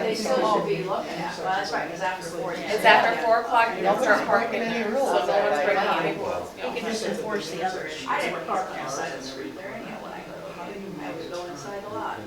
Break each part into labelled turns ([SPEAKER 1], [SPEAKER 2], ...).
[SPEAKER 1] they still should be looking at, well, that's right, because after four. you
[SPEAKER 2] It's
[SPEAKER 1] should-
[SPEAKER 2] after four o'clock, you don't start
[SPEAKER 3] Nobody's
[SPEAKER 2] parking
[SPEAKER 3] breaking
[SPEAKER 2] there,
[SPEAKER 3] any
[SPEAKER 2] so no
[SPEAKER 3] rules.
[SPEAKER 2] one's breaking any rules.
[SPEAKER 4] You can just enforce the other issue.
[SPEAKER 1] I didn't park on the side of the street there anyhow when I go to Harding. I was going inside the lot.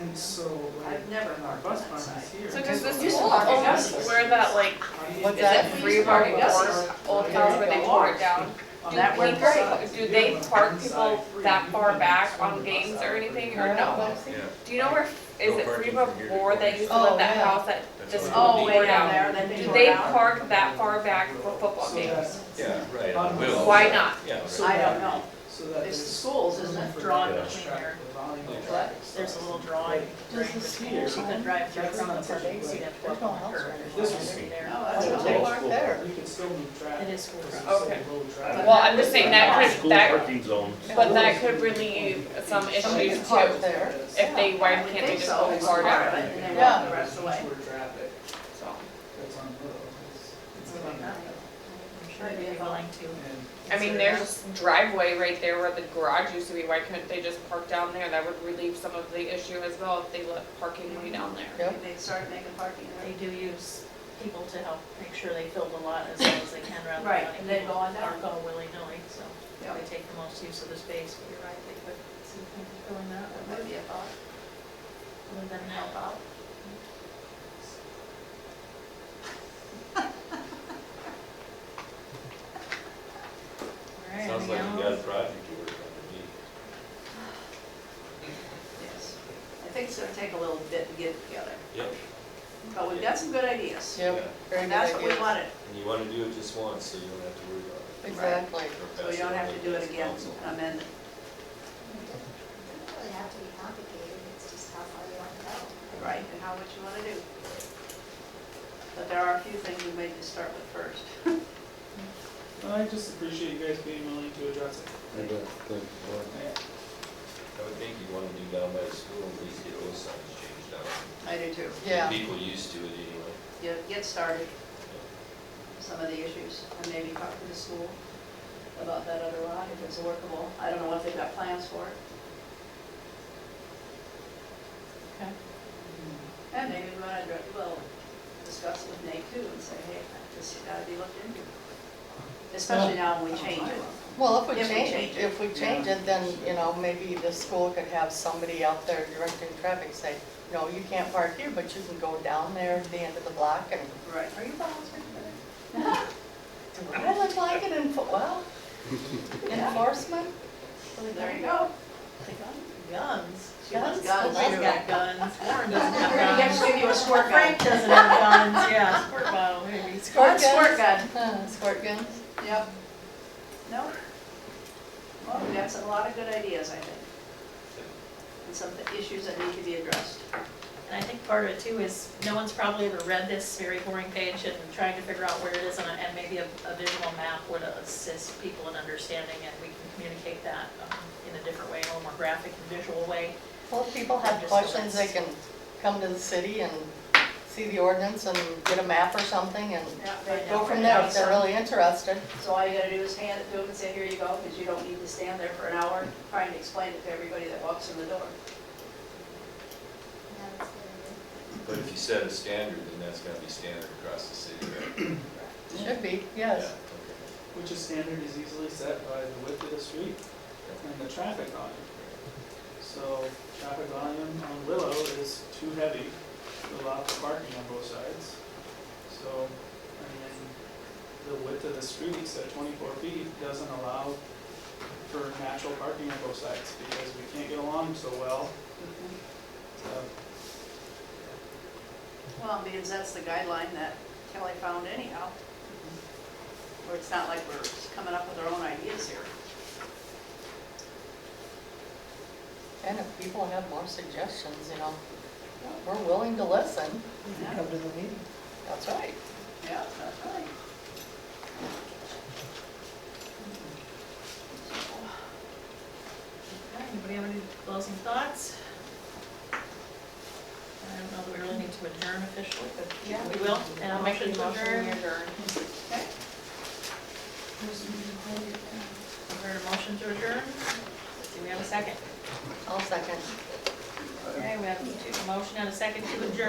[SPEAKER 5] And so when
[SPEAKER 1] I've never
[SPEAKER 5] our
[SPEAKER 1] parked on
[SPEAKER 5] bus
[SPEAKER 1] that
[SPEAKER 5] barn
[SPEAKER 1] side.
[SPEAKER 5] is here.
[SPEAKER 2] So does
[SPEAKER 1] Used
[SPEAKER 2] this
[SPEAKER 1] to
[SPEAKER 2] old,
[SPEAKER 1] park at
[SPEAKER 2] old,
[SPEAKER 1] Gus's.
[SPEAKER 2] where that like,
[SPEAKER 5] What
[SPEAKER 2] is
[SPEAKER 1] that?
[SPEAKER 2] it Free Market Wars, old house where they tore it down?
[SPEAKER 1] On
[SPEAKER 2] Do
[SPEAKER 1] that one
[SPEAKER 2] people,
[SPEAKER 1] side.
[SPEAKER 2] do they park people that far back on games or anything, or no? Do you know where, is it Free Market War that used to
[SPEAKER 3] Oh,
[SPEAKER 2] live that
[SPEAKER 3] yeah.
[SPEAKER 2] house that just
[SPEAKER 1] Oh, way
[SPEAKER 2] tore
[SPEAKER 1] down
[SPEAKER 2] down?
[SPEAKER 1] there, they
[SPEAKER 2] Do
[SPEAKER 1] tore
[SPEAKER 2] they
[SPEAKER 1] it out.
[SPEAKER 2] park that far back for football
[SPEAKER 5] So that-
[SPEAKER 2] games?
[SPEAKER 4] Yeah, right.
[SPEAKER 5] on the
[SPEAKER 4] Well,
[SPEAKER 5] wheels.
[SPEAKER 2] Why not?
[SPEAKER 4] Yeah,
[SPEAKER 5] so
[SPEAKER 1] I
[SPEAKER 5] that-
[SPEAKER 1] don't know.
[SPEAKER 5] So that
[SPEAKER 1] It's the
[SPEAKER 5] there's
[SPEAKER 1] schools, isn't
[SPEAKER 5] room
[SPEAKER 1] it,
[SPEAKER 5] for
[SPEAKER 1] drawn
[SPEAKER 5] the
[SPEAKER 1] between
[SPEAKER 5] traffic,
[SPEAKER 1] there.
[SPEAKER 5] the volume of
[SPEAKER 1] What?
[SPEAKER 5] traffic stuff.
[SPEAKER 4] There's a
[SPEAKER 5] So
[SPEAKER 4] little
[SPEAKER 5] like,
[SPEAKER 4] drawing.
[SPEAKER 3] Does the school
[SPEAKER 4] She
[SPEAKER 3] sign?
[SPEAKER 4] drive
[SPEAKER 5] through on the Sundays, you'd
[SPEAKER 3] have to walk on her.
[SPEAKER 5] This is-
[SPEAKER 1] No, Oh, that's
[SPEAKER 3] Why
[SPEAKER 1] what
[SPEAKER 3] don't
[SPEAKER 1] they
[SPEAKER 3] they
[SPEAKER 1] were.
[SPEAKER 3] park there?
[SPEAKER 5] You could still move traffic.
[SPEAKER 4] It is school
[SPEAKER 5] because it's
[SPEAKER 2] traffic.
[SPEAKER 5] still
[SPEAKER 2] Okay.
[SPEAKER 5] road traffic.
[SPEAKER 2] Well, I'm just saying that could,
[SPEAKER 6] School
[SPEAKER 2] that,
[SPEAKER 6] parking zones.
[SPEAKER 2] but that could relieve some
[SPEAKER 3] Somebody
[SPEAKER 2] issues
[SPEAKER 3] could park
[SPEAKER 2] too.
[SPEAKER 3] there.
[SPEAKER 2] If they, why
[SPEAKER 1] I would
[SPEAKER 2] can't they
[SPEAKER 1] think
[SPEAKER 2] just
[SPEAKER 1] so.
[SPEAKER 2] go
[SPEAKER 1] It's
[SPEAKER 2] far
[SPEAKER 1] part of
[SPEAKER 2] down?
[SPEAKER 1] it, And they walk
[SPEAKER 3] Yeah.
[SPEAKER 1] the rest of the way.
[SPEAKER 5] Tour traffic
[SPEAKER 2] So,
[SPEAKER 5] that's on the road. It's- it's
[SPEAKER 1] Really not.
[SPEAKER 5] not-
[SPEAKER 4] I'm sure they'd be willing to.
[SPEAKER 5] and
[SPEAKER 2] I mean,
[SPEAKER 4] Consider
[SPEAKER 2] there's driveway right there where the garage used to be, why couldn't they just park down there? That would relieve some of the issue as well if they let parking way down there.
[SPEAKER 3] Yep.
[SPEAKER 1] They start making parking.
[SPEAKER 4] They do use people to help make sure they fill the lot as well as they can around the
[SPEAKER 1] Right,
[SPEAKER 4] county.
[SPEAKER 1] and then go on down.
[SPEAKER 4] Aren't all willy-nilly, so
[SPEAKER 1] Yeah.
[SPEAKER 4] they take the most use of the space, but you're right, they could see if they could fill in that
[SPEAKER 1] That
[SPEAKER 4] one,
[SPEAKER 1] might be a thought.
[SPEAKER 4] other than help out. All right,
[SPEAKER 6] Sounds like
[SPEAKER 4] anything
[SPEAKER 6] you
[SPEAKER 4] else?
[SPEAKER 6] got a project to work on
[SPEAKER 1] Yes. I think it's gonna take a little bit to get it together,
[SPEAKER 6] to me. Yep.
[SPEAKER 1] but we've got some good ideas.
[SPEAKER 3] Yep, very
[SPEAKER 1] And
[SPEAKER 3] good
[SPEAKER 1] that's what we
[SPEAKER 3] idea.
[SPEAKER 1] wanted,
[SPEAKER 6] And you wanna do it just once, so you don't have to worry about it.
[SPEAKER 3] Exactly.
[SPEAKER 6] Or
[SPEAKER 1] so
[SPEAKER 6] pass
[SPEAKER 1] we don't have to do
[SPEAKER 6] on
[SPEAKER 1] it again,
[SPEAKER 6] council.
[SPEAKER 1] amend it.
[SPEAKER 7] Doesn't really have to be complicated, it's just how far you want to go.
[SPEAKER 1] Right, and how, what you want to do. But there are a few things we may need to start with first.
[SPEAKER 5] I just appreciate you guys being willing to address it. Yeah.
[SPEAKER 6] I would think you wanna do down by the school, at least get those signs changed out.
[SPEAKER 1] I do too.
[SPEAKER 3] Yeah,
[SPEAKER 6] People used to it anyway.
[SPEAKER 1] You get started, some of the issues, and maybe talk to the school about that other lot, if it's workable. I don't know what they've got plans for it.
[SPEAKER 4] Okay.
[SPEAKER 1] And maybe we want to, we'll discuss with Nate too and say, hey, this has got to be looked into. Especially now when we change it.
[SPEAKER 3] well, if we
[SPEAKER 1] If we
[SPEAKER 3] change,
[SPEAKER 1] change it.
[SPEAKER 3] if we change it, then, you know, maybe the school could have somebody out there directing traffic, say, no, you can't park here, but you can go down there at the end of the block and,
[SPEAKER 1] Right.
[SPEAKER 3] are you volunteering for that? Do I look like an enfor, well, enforcement?
[SPEAKER 1] There you go.
[SPEAKER 4] Guns.
[SPEAKER 1] She wants
[SPEAKER 4] Guns.
[SPEAKER 1] guns.
[SPEAKER 4] Nobody's got guns. Warren doesn't
[SPEAKER 1] We're gonna
[SPEAKER 4] have
[SPEAKER 1] get to
[SPEAKER 4] guns.
[SPEAKER 1] give you a squirt gun.
[SPEAKER 4] Frank doesn't have guns, yeah, squirt bottle, maybe.
[SPEAKER 3] Squirt
[SPEAKER 1] That's squirt
[SPEAKER 3] guns?
[SPEAKER 1] gun.
[SPEAKER 3] Uh, Squirt guns?
[SPEAKER 1] Yep. No? Well, we got some- a lot of good ideas, I think. And some issues that need to be addressed.
[SPEAKER 4] And I think part of it too is, no one's probably ever read this very boring page and trying to figure out where it is, and, and maybe a, a visual map would assist people in understanding, and we can communicate that um, in a different way, a little more graphic and visual way.
[SPEAKER 3] Well, if people have questions, they can come to the city and see the ordinance and get a map or something and
[SPEAKER 1] Yeah,
[SPEAKER 4] they
[SPEAKER 3] go from there if they're really interested.
[SPEAKER 1] So all you gotta do is hand it to them and say, here you go, because you don't need to stand there for an hour trying to explain it to everybody that walks in the door.
[SPEAKER 7] And that's what
[SPEAKER 6] But if you set a standard, then that's gotta be standard across the city, right?
[SPEAKER 3] Should be,
[SPEAKER 6] Yeah,
[SPEAKER 3] yes.
[SPEAKER 6] okay.
[SPEAKER 5] Which is standard is easily set by the width of the street and the traffic volume. So traffic volume on Willow is too heavy to allow for parking on both sides. So, I mean, the width of the streets at twenty-four feet doesn't allow for natural parking on both sides because we can't get along so well.
[SPEAKER 1] Mm-hmm.
[SPEAKER 5] So,
[SPEAKER 1] Well, because that's the guideline that Kelly found anyhow. Where it's not like we're coming up with our own ideas here.
[SPEAKER 3] And if people have more suggestions, you know, we're willing to listen.
[SPEAKER 1] Yeah,
[SPEAKER 3] to the meeting. That's right.
[SPEAKER 1] yeah, that's right.
[SPEAKER 4] Okay, Anybody have any closing thoughts? I don't know that we really need to adjourn officially, but
[SPEAKER 3] Yeah.
[SPEAKER 4] we will, and I'll motion to
[SPEAKER 3] Motion
[SPEAKER 4] adjourn.
[SPEAKER 3] to adjourn.
[SPEAKER 4] Is there a motion to adjourn? Do we have a second?
[SPEAKER 3] I'll second.
[SPEAKER 4] Okay, we have a motion and a second to adjourn.